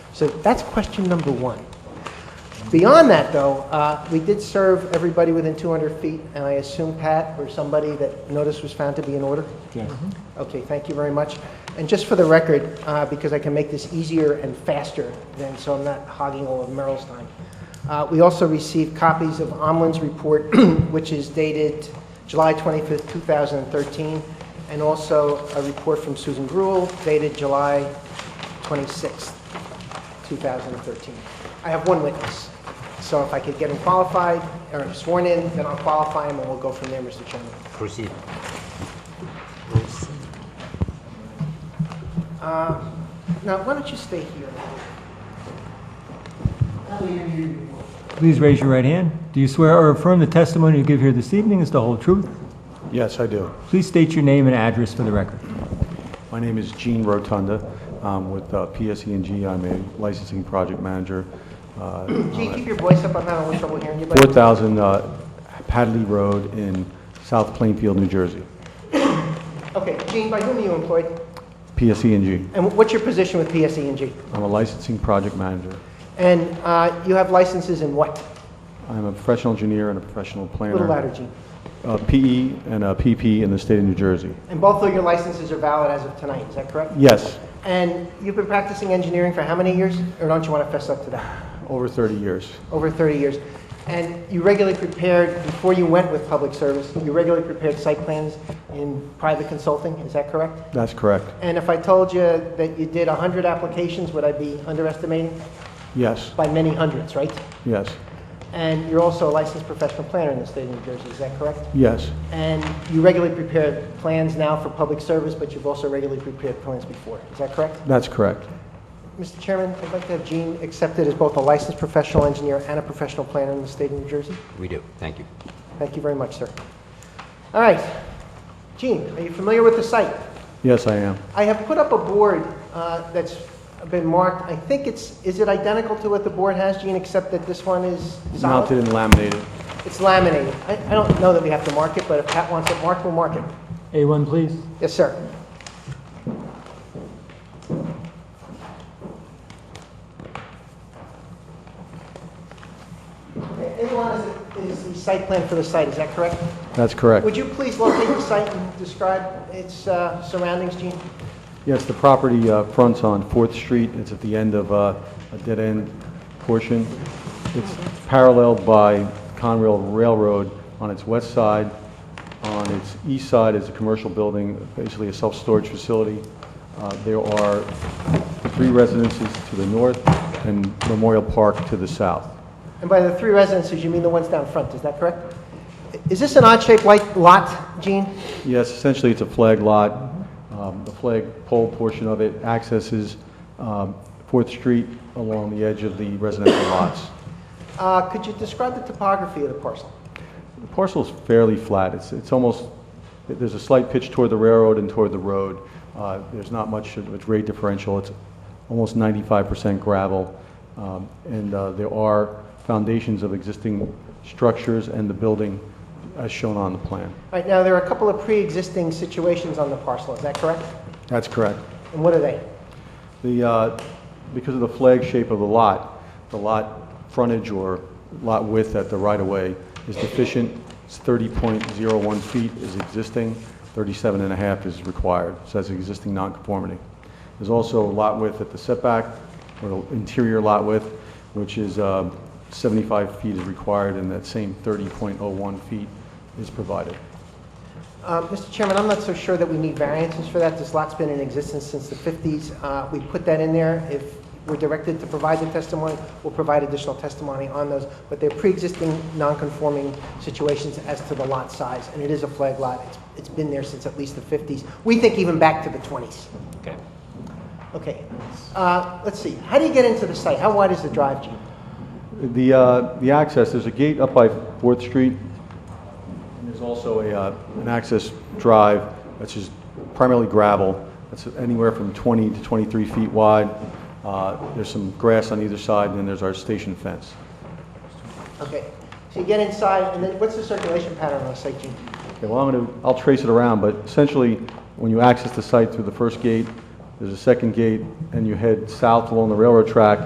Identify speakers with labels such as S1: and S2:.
S1: So that's question number one. Beyond that, though, uh, we did serve everybody within 200 feet, and I assume Pat or somebody that notice was found to be in order? Mm-hmm.
S2: Yes.
S1: Okay, thank you very much. And just for the record, uh, because I can make this easier and faster than, so I'm not hogging all of Merrill's time. Uh, We also received copies of Omlin's report, which is dated July 25th, 2013, and also a report from Susan Gruel dated July 26th, 2013. I have one witness, so if I could get him qualified or sworn in, then I'll qualify him and we'll go from there, Mr. Chairman.
S3: Proceed.
S1: Now, why don't you stay here?
S4: Please raise your right hand. Do you swear or affirm the testimony you give here this evening is the whole truth?
S2: Yes, I do.
S4: Please state your name and address for the record.
S2: My name is Gene Rotunda. I'm with uh, PSE&G. I'm a licensing project manager. uh,
S1: Can you keep your voice up? I'm having a little trouble hearing you, buddy.
S2: 4,000 uh, Padley Road in South Plainfield, New Jersey.
S1: Okay, Gene, by whom are you employed?
S2: PSE&G.
S1: And what's your position with PSE&G?
S2: E I'm a licensing project manager.
S1: And uh, you have licenses in what?
S2: I'm a professional engineer and a professional
S1: A
S2: planner.
S1: little louder, Gene.
S2: Uh, PE and a PP in the state of New Jersey.
S1: And both of your licenses are valid as of tonight, is that correct?
S2: Yes,
S1: And you've been practicing engineering for how many years? Or don't you want to fess up to that?
S2: over 30 years.
S1: Over 30 years. And you regularly prepared, before you went with public service, you regularly prepared site plans in private consulting, is that correct?
S2: That's correct.
S1: And if I told you that you did 100 applications, would I be underestimating?
S2: Yes,
S1: By many hundreds, right?
S2: yes,
S1: And you're also a licensed professional planner in the state of New Jersey, is that correct?
S2: yes,
S1: And you regularly prepare plans now for public service, but you've also regularly prepared plans before, is that correct?
S2: that's correct.
S1: Mr. Chairman, I'd like to have Gene accepted as both a licensed professional engineer and a professional planner in the state of New Jersey.
S3: We do, thank you.
S1: Thank you very much, sir. All right. Gene, are you familiar with the site?
S2: Yes, I am.
S1: I have put up a board uh, that's been marked, I think it's, is it identical to what the board has, Gene, except that this one is solid?
S2: Mounted and laminated.
S1: It's laminated. I, I don't know that we have to mark it, but if Pat wants it marked, we'll mark it.
S4: A1, please.
S1: Yes, sir. A1 is, is the site plan for the site, is that correct?
S2: That's correct.
S1: Would you please locate the site and describe its uh, surroundings, Gene?
S2: Yes, the property uh, fronts on Fourth Street. It's at the end of uh, a dead-end portion. It's paralleled by Conrail Railroad on its west side. On its east side is a commercial building, basically a self-storage facility. Uh, There are three residences to the north and Memorial Park to the south.
S1: And by the three residences, you mean the ones down front, is that correct? Is this an odd-shaped light- lot, Gene?
S2: Yes, essentially, it's a flag lot. Um, The flag pole portion of it accesses um, Fourth Street along the edge of the residential lots.
S1: Uh, Could you describe the topography of the parcel?
S2: The parcel's fairly flat. It's, it's almost, there's a slight pitch toward the railroad and toward the road. Uh, There's not much of a grade differential. It's almost 95% gravel. Um, And uh, there are foundations of existing structures and the building as shown on the plan.
S1: All right, now, there are a couple of pre-existing situations on the parcel, is that correct?
S2: That's correct.
S1: And what are they?
S2: The, uh, because of the flag shape of the lot, the lot frontage or lot width at the right-of-way is deficient. It's 30.01 feet is existing, 37 and a half is required, so that's existing nonconformity. There's also lot width at the setback, or the interior lot width, which is uh, 75 feet is required, and that same 30.01 feet is provided.
S1: Uh, Mr. Chairman, I'm not so sure that we need variances for that. This lot's been in existence since the 50s. Uh, We put that in there. If we're directed to provide the testimony, we'll provide additional testimony on those, but they're pre-existing, non-conforming situations as to the lot size, and it is a flag lot. It's- It's been there since at least the 50s. We think even back to the 20s.
S3: Okay.
S1: Okay, Uh, let's see. How do you get into the site? How wide is the drive, Gene?
S2: The, uh, the access, there's a gate up by Fourth Street, and there's also a, uh, an access drive that's just primarily gravel. That's anywhere from 20 to 23 feet wide. Uh, There's some grass on either side, and then there's our station fence.
S1: Okay, so you get inside, and then what's the circulation pattern on the site, Gene?
S2: Okay, well, I'm going to, I'll trace it around, but essentially, when you access the site through the first gate, there's a second gate, and you head south along the railroad track,